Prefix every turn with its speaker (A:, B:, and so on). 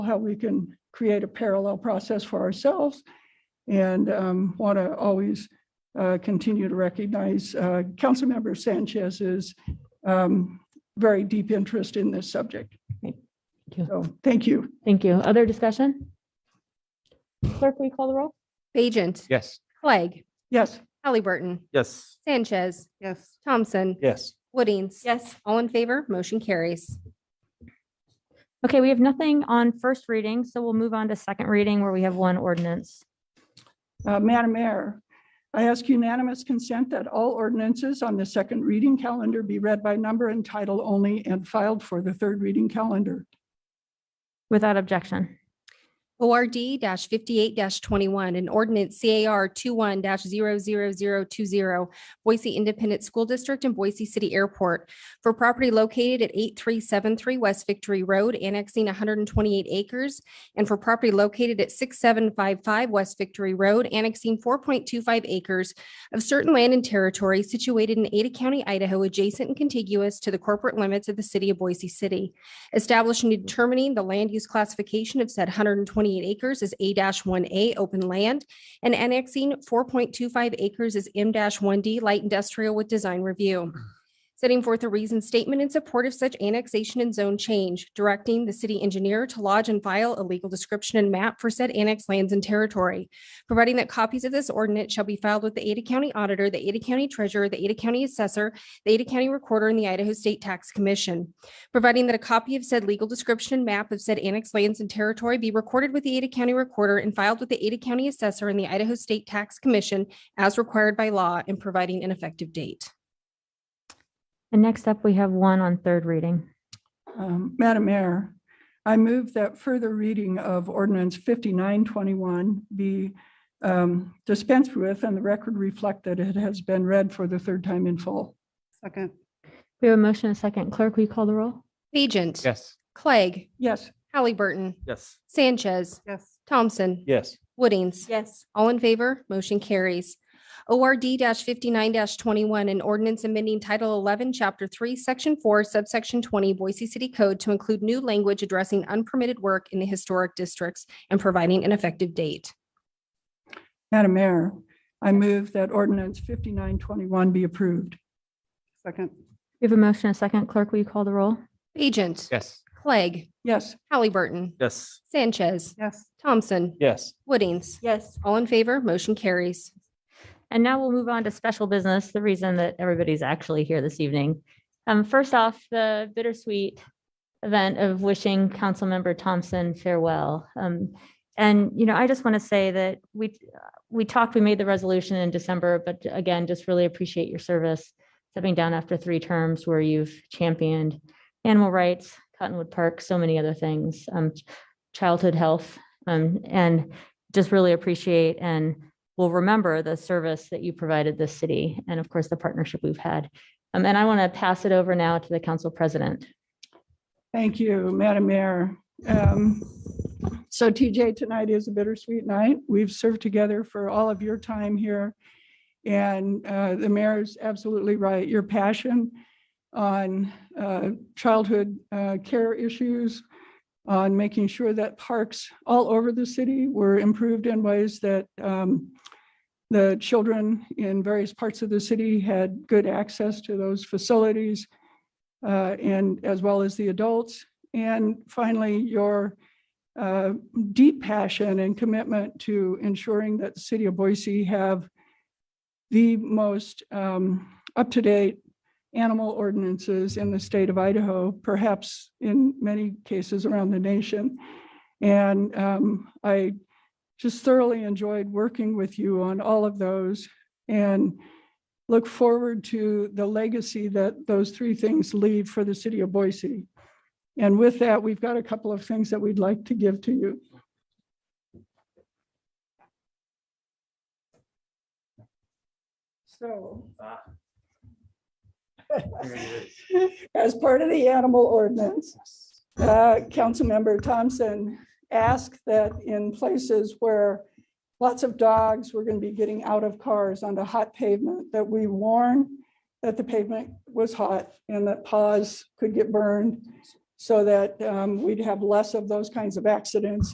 A: how we can create a parallel process for ourselves and want to always uh, continue to recognize uh, Councilmember Sanchez's um, very deep interest in this subject.
B: Great. Thank you.
A: So, thank you.
B: Thank you. Other discussion? Clerk, will you call the roll?
C: Bajent.
D: Yes.
C: Clegg.
A: Yes,
C: Halliburton.
D: Yes.
C: Sanchez. Yes. Thompson.
D: Yes.
C: Woodings.
E: Yes.
C: All in favor, motion carries.
B: Okay, we have nothing on first reading, so we'll move on to second reading where we have one ordinance.
A: Uh, Madam Mayor, I ask unanimous consent that all ordinances on the second reading calendar be read by number and title only and filed for the third reading calendar.
B: Without objection.
C: ORD fifty-eight twenty-one, an ordinance CAR 21 20 Boise Independent School District and Boise City Airport for property located at eight three seven three West Victory Road, annexing one hundred and twenty-eight acres, and for property located at six seven five five West Victory Road, annexing four point two five acres of certain land and territory situated in Ada County, Idaho, adjacent and contiguous to the corporate limits of the city of Boise City establishing and determining the land use classification of said 128 acres as A-1A open land and annexing 4.25 acres as M-1D light industrial with design review. Setting forth a reasoned statement in support of such annexation and zone change, directing the city engineer to lodge and file a legal description and map for said annexed lands and territory, providing that copies of this ordinance shall be filed with the Ada County Auditor, the Ada County Treasurer, the Ada County Assessor, the Ada County Recorder, and the Idaho State Tax Commission providing that a copy of said legal description and map of said annexed lands and territory be recorded with the Ada County Recorder and filed with the Ada County Assessor and the Idaho State Tax Commission as required by law and providing an effective date.
B: And next up, we have one on third reading.
A: Um, Madam Mayor, I move that further reading of ordinance 5921 be um, dispensed with and the record reflect that it has been read for the third time in full.
E: Second.
B: We have a motion and a second. Clerk, will you call the roll?
C: Agent.
D: Yes.
C: Clegg.
A: Yes,
C: Halliburton.
D: Yes.
C: Sanchez.
E: Yes.
C: Thompson.
D: Yes.
C: Woodings.
E: Yes.
C: All in favor, motion carries. ORD fifty-nine twenty-one, an ordinance amending Title eleven, Chapter three, Section four, subsection twenty, Boise City Code to include new language addressing unpermitted work in the historic districts and providing an effective date.
A: Madam Mayor, I move that ordinance 5921 be approved.
E: Second.
B: We have a motion and a second. Clerk, will you call the roll?
C: Agent.
D: Yes.
C: Clegg.
A: Yes,
C: Halliburton.
D: Yes.
C: Sanchez.
E: Yes.
C: Thompson.
D: Yes.
C: Woodings.
E: Yes.
C: All in favor, motion carries.
B: And now we'll move on to special business, the reason that everybody's actually here this evening. Um, first off, the bittersweet event of wishing Councilmember Thompson farewell. Um, and, you know, I just want to say that we, we talked, we made the resolution in December, but again, just really appreciate your service. Stepping down after three terms where you've championed animal rights, Cottonwood Park, so many other things, um, childhood health. Um, and just really appreciate and will remember the service that you provided this city and of course the partnership we've had. Um, and I want to pass it over now to the council president.
A: thank you, Madam Mayor. Um, So TJ, tonight is a bittersweet night. We've served together for all of your time here. And uh, the mayor is absolutely right. Your passion on uh, childhood uh, care issues, on making sure that parks all over the city were improved in ways that um, the children in various parts of the city had good access to those facilities uh, and as well as the adults. And finally, your uh, deep passion and commitment to ensuring that the city of Boise have the most um, up-to-date animal ordinances in the state of Idaho, perhaps in many cases around the nation. And um, I just thoroughly enjoyed working with you on all of those and look forward to the legacy that those three things leave for the city of Boise. And with that, we've got a couple of things that we'd like to give to you. So. As part of the animal ordinance, uh, Councilmember Thompson asked that in places where lots of dogs were going to be getting out of cars onto hot pavement, that we warn that the pavement was hot and that paws could get burned. so that um, we'd have less of those kinds of accidents